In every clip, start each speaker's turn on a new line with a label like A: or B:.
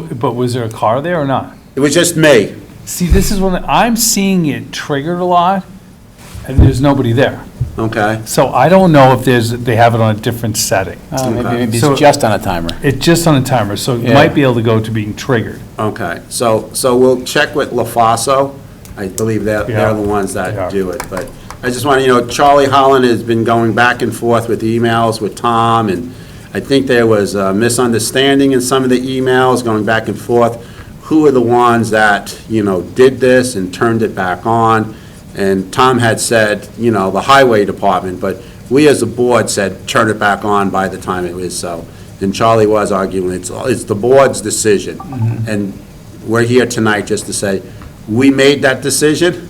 A: but was there a car there or not?
B: It was just me.
A: See, this is when, I'm seeing it triggered a lot, and there's nobody there.
B: Okay.
A: So I don't know if there's, they have it on a different setting.
C: Uh, Maybe
B: Okay.
C: maybe
A: So-
C: it's just on a timer.
A: It's just on a timer, so it
C: Yeah.
A: might be able to go to being triggered.
B: Okay, so, so we'll check with LaFaso. I believe they're, they're the
A: Yeah.
B: ones that
A: Yeah.
B: do it, but I just want to, you know, Charlie Holland has been going back and forth with emails with Tom, and I think there was a misunderstanding in some of the emails, going back and forth. Who are the ones that, you know, did this and turned it back on? And Tom had said, you know, the highway department, but we as a board said, turn it back on by the time it was so. And Charlie was arguing, it's, it's the board's decision. And we're here tonight just to say, we made that decision,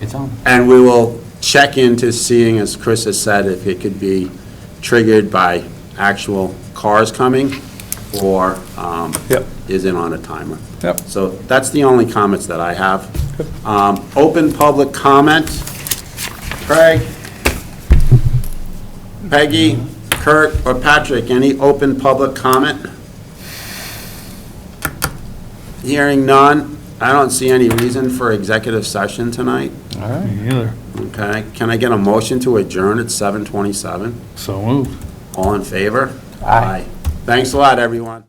C: It's on.
B: and we will check into seeing, as Chris has said, if it could be triggered by actual cars coming, or um,
A: Yep.
B: is it on a timer?
A: Yep.
B: So that's the only comments that I have. Um, Open public comment. Craig? Peggy, Kurt, or Patrick, any open public comment? Hearing none. I don't see any reason for executive session tonight.
A: All right. Me neither.
B: Okay, can I get a motion to adjourn at 7:27?
A: So moved.
B: All in favor?
C: Aye.
B: Thanks a lot, everyone.